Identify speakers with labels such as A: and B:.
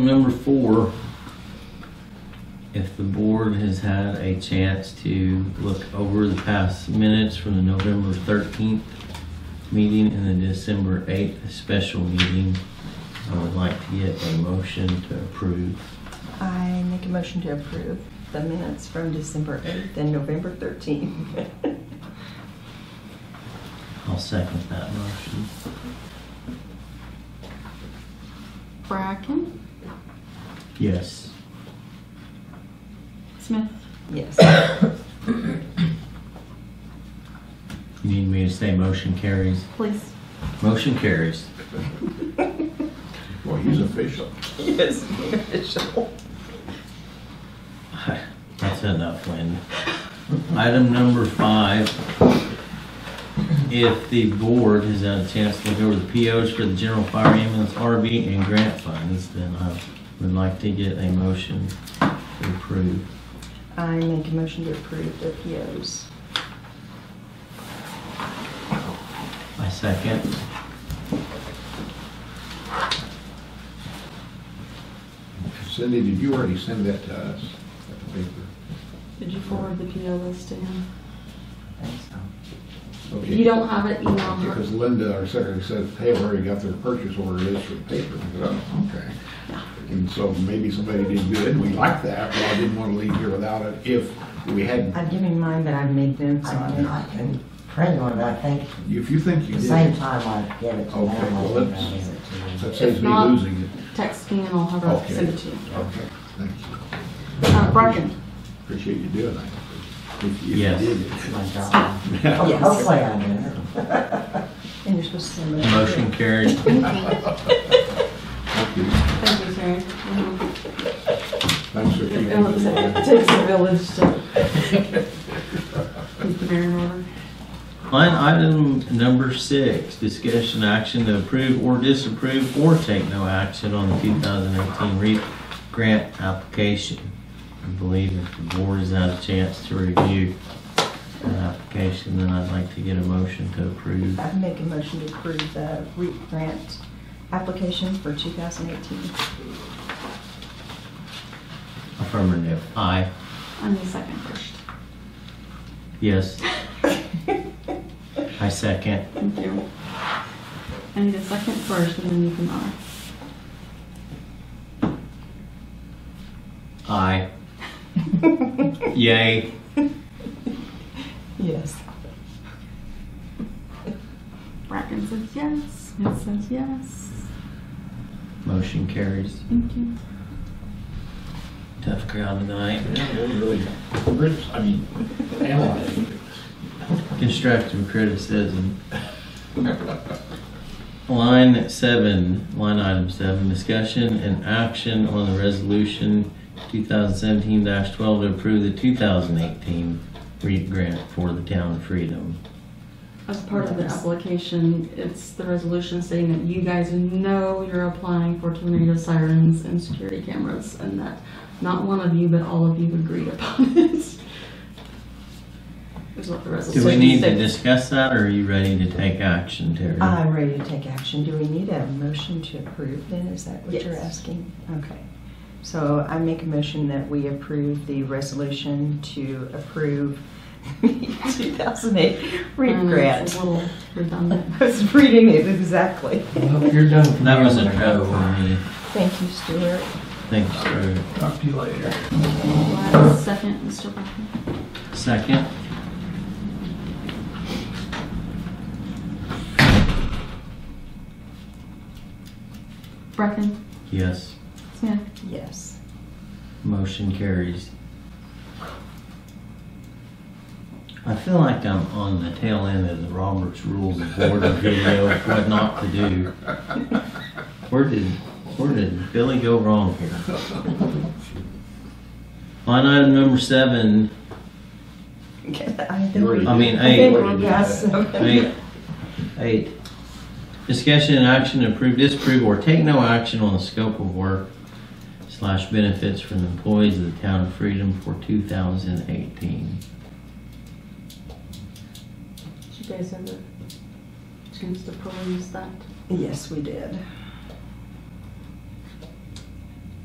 A: Number four, if the board has had a chance to look over the past minutes from the November 13th meeting and the December 8th special meeting, I would like to get a motion to approve.
B: I make a motion to approve the minutes from December 8th and November 13th.
A: I'll second that motion.
C: Bracken,
A: Yes.
C: Smith,
B: Yes.
A: You need me to say motion carries?
C: please.
A: Motion carries.
D: Well, he's official.
B: Yes, official.
A: That's enough, Lynn. Item number five. If the board has had a chance to look over the POs for the general fire ambulance RV and grant funds, then I would like to get a motion to approve.
B: I make a motion to approve the POs.
A: I second.
D: Cindy, did you already send that to us? That paper?
C: Did you forward the PO list to him? If
D: Okay.
C: you don't have it, email her.
D: Because Linda, our secretary, said, hey, we already got their purchase order is for the paper. I said, "Oh, Okay. And so maybe somebody didn't do it, and we like that, but I didn't want to leave here without it if we hadn't.
B: I've given mine, but I've made notes
E: I
B: on
E: mean,
B: it.
E: I can print one, but I think
D: If you think you
E: the
D: did.
E: same time I give it to them,
D: Okay, well,
E: I'll
D: let's-
E: give it to you.
D: That saves
C: If
D: me
C: not-
D: losing it.
C: Text me and I'll have her
D: Oh, Okay.
C: send it to you.
D: Okay, thank you.
C: Uh, Bracken,
D: Appreciate you doing that. If you
A: Yes.
D: did it.
E: My job.
B: Yes.
E: Hopefully I do.
B: And you're supposed to send it.
A: Motion carried.
D: Thank you.
C: thank you, Terry. Mhm.
D: Thanks for keeping
C: It looks like it
D: it.
C: takes a village to keep the bear in order.
A: Line item number six, discussion action to approve or disapprove or take no action on the 2018 REAP grant application. I believe if the board has had a chance to review that application, then I'd like to get a motion to approve.
B: I make a motion to approve the REAP grant application for 2018.
A: Affirmative. Aye.
C: I need a second first.
A: Yes. I second.
C: Thank you. I need a second first and then you can, uh,
A: Aye. Yay.
B: Yes.
C: Bracken says yes, Smith says yes.
A: Motion carries.
C: Thank you.
A: Tough crowd tonight.
D: Yeah, we're really- we're- I mean, analyzing things.
A: Constructive criticism. Line seven, line item seven, discussion and action on the resolution two thousand seventeen twelve to approve the two thousand eighteen REAP grant for the town of Freedom.
C: As part of the application, it's the resolution stating that you guys know you're applying for tornado sirens and security cameras, and that not one of you, but all of you agreed upon it. Is what the resolution
A: Do we need to
C: states.
A: discuss that or are you ready to take action, Terry?
B: I'm ready to take action. Do we need a motion to approve then? Is that what you're
C: Yes.
B: asking? Okay. So I make a motion that we approve the resolution to approve the 2008 REAP
C: Um, It's
B: grant.
C: a little redundant.
B: I was reading it exactly.
F: You're done. for
A: That
F: now.
A: was a no for me.
B: Thank you, Stuart.
A: Thanks, Drew.
F: Talk to you later.
C: Last Second, Mr. Bracken.
A: Second.
C: Bracken,
A: Yes.
C: Smith,
B: Yes.
A: Motion carries. I feel like I'm on the tail end of the Roberts Rules of Order video, of what not to do. Where did, where did Billy go wrong here? Line item number seven,
B: Okay, I
D: You already
A: I
D: did.
A: mean,
D: You
A: hey.
D: already did
B: Yes.
D: that.
A: Eight, eight. Discussion and action to approve, disapprove, or take no action on the scope of work slash benefits for the employees of the town of Freedom for two thousand eighteen.
C: did you guys have a chance to peruse that?
B: Yes, we did.